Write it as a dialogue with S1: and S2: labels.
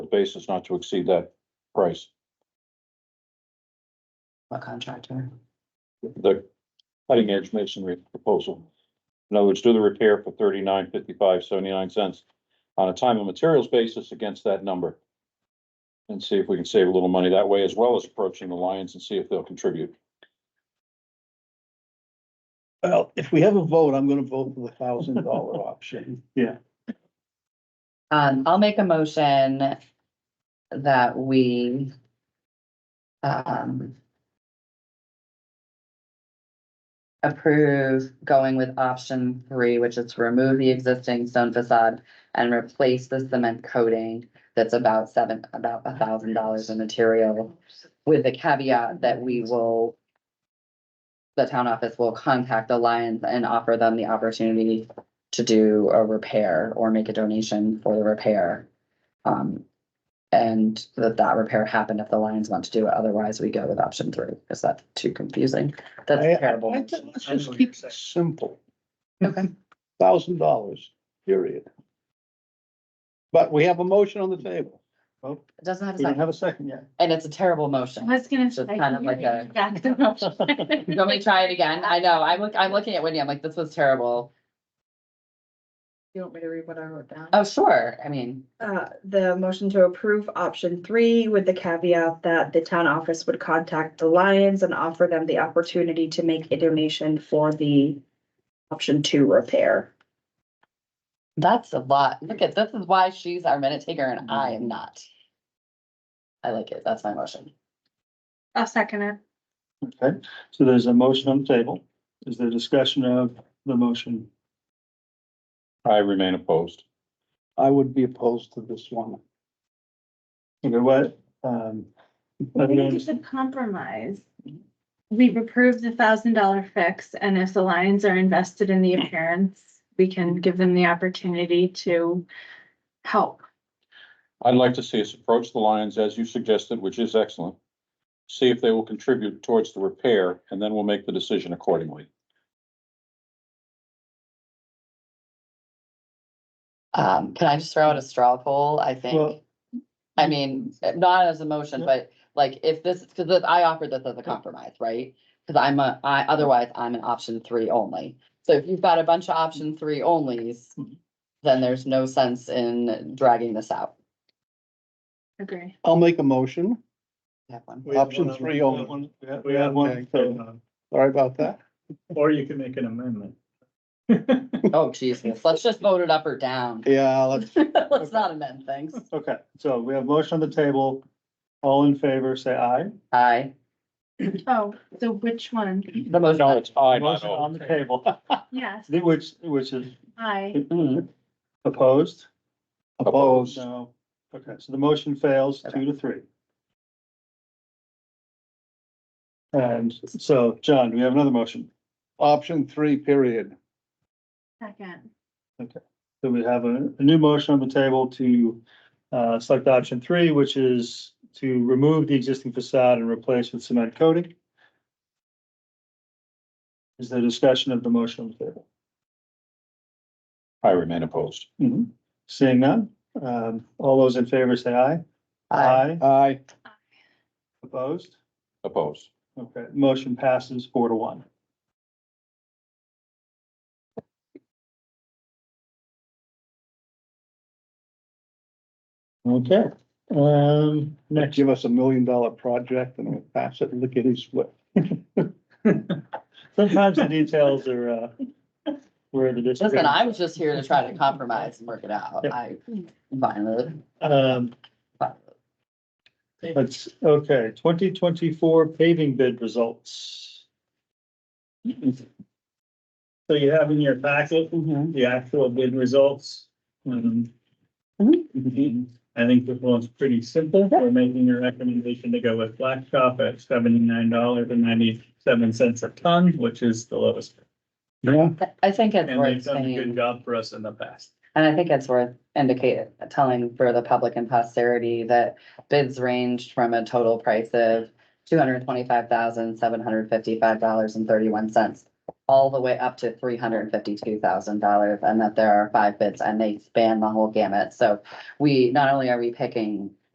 S1: basis not to exceed that price.
S2: What contractor?
S1: The cutting edge masonry proposal. In other words, do the repair for thirty-nine, fifty-five, seventy-nine cents on a time and materials basis against that number. And see if we can save a little money that way, as well as approaching the Lions and see if they'll contribute.
S3: Well, if we have a vote, I'm gonna vote for the thousand dollar option. Yeah.
S2: Um, I'll make a motion that we um approve going with option three, which is to remove the existing stone facade and replace the cement coating that's about seven, about a thousand dollars in material with the caveat that we will the town office will contact the Lions and offer them the opportunity to do a repair or make a donation for the repair. Um, and that that repair happened if the Lions want to do it, otherwise we go with option three, is that too confusing? That's
S3: I- I-
S2: terrible.
S3: I think Let's just keep it simple,
S2: Okay,
S3: thousand dollars, period. But we have a motion on the table. Well,
S2: it doesn't have a
S3: we don't
S2: second,
S3: have a second yet.
S2: and it's a terrible motion.
S4: I was gonna.
S2: So it's
S4: say,
S2: kind of
S4: you
S2: like a-
S4: got the motion.
S2: Let me to try it again, I know, I'm look, I'm looking at Wendy, I'm like, this was terrible.
S4: You want me to read what I wrote down?
S2: Oh, sure, I mean,
S5: Uh, the motion to approve option three with the caveat that the town office would contact the Lions and offer them the opportunity to make a donation for the option two repair.
S2: that's a lot, look at, this is why she's our minute taker and I am not. I like it, that's my motion.
S4: I'll second it.
S6: Okay, so there's a motion on the table. Is there discussion of the motion?
S1: I remain opposed.
S3: I would be opposed to this one.
S6: Okay, what, um,
S4: I
S6: I don't
S4: think it's a
S6: understand.
S4: compromise. We've approved the thousand dollar fix and if the Lions are invested in the appearance, we can give them the opportunity to help.
S1: I'd like to see us approach the Lions as you suggested, which is excellent. See if they will contribute towards the repair, and then we'll make the decision accordingly.
S2: Um, can I just throw out a straw poll, I think?
S6: Well-
S2: I mean, not as a motion,
S6: Yeah.
S2: but like if this, because I offered this as a compromise, right? Cause I'm a, I, otherwise I'm an option three only. So if you've got a bunch of option three onlys, then there's no sense in dragging this out.
S4: Agree.
S3: I'll make a motion.
S2: Have one.
S7: We have
S3: Option
S7: one on-
S3: three
S7: we have
S3: only.
S7: one- we have-
S6: We had one,
S7: okay,
S3: Sorry about that.
S7: Or you can make an amendment.
S2: Oh, Jesus, let's just vote it up or down.
S3: Yeah, let's,
S2: Let's not amend things.
S6: okay, so we have motion on the table. All in favor, say aye.
S2: Aye.
S4: Oh, so which one?
S2: the motion.
S1: No, it's I, not
S6: Motion on
S1: O.
S6: the table,
S4: Yes,
S6: which, which is
S4: I,
S2: Mm,
S6: opposed?
S3: Opposed.
S6: No. Okay, so the motion fails two to three. And so, John, do we have another motion?
S3: option three, period.
S4: second.
S6: So we have a, a new motion on the table to, uh, select option three, which is to remove the existing facade and replace with cement coating. Is there discussion of the motion on the table?
S1: I remain opposed.
S6: Hmm. Seeing none, um, all those in favor say aye.
S2: Aye.
S3: Aye.
S6: Opposed?
S1: Opposed.
S6: Okay, motion passes four to one. Okay, um, next.
S3: Give us a million dollar project and we'll pass it lickety split.
S6: Sometimes the details are, uh, where the.
S2: Listen, I was just here to try to compromise and work it out. I, finally.
S6: Um, that's, okay, twenty twenty-four paving bid results.
S7: So you have in your packet
S2: Mm-hmm.
S7: the actual bid results. Um, I think this one's pretty simple. We're making a recommendation to go with Blacktop at seventy-nine dollars and ninety-seven cents a ton, which is the lowest.
S3: Yeah.
S2: I think it's
S7: And
S2: worth
S7: they've done a good
S2: saying,
S7: job for us in the past.
S2: and I think it's worth indicating, telling for the public and posterity that bids ranged from a total price of two hundred twenty-five thousand, seven hundred fifty-five dollars and thirty-one cents, all the way up to three hundred fifty-two thousand dollars, and that there are five bids, and they span the whole gamut. So we, not only are we picking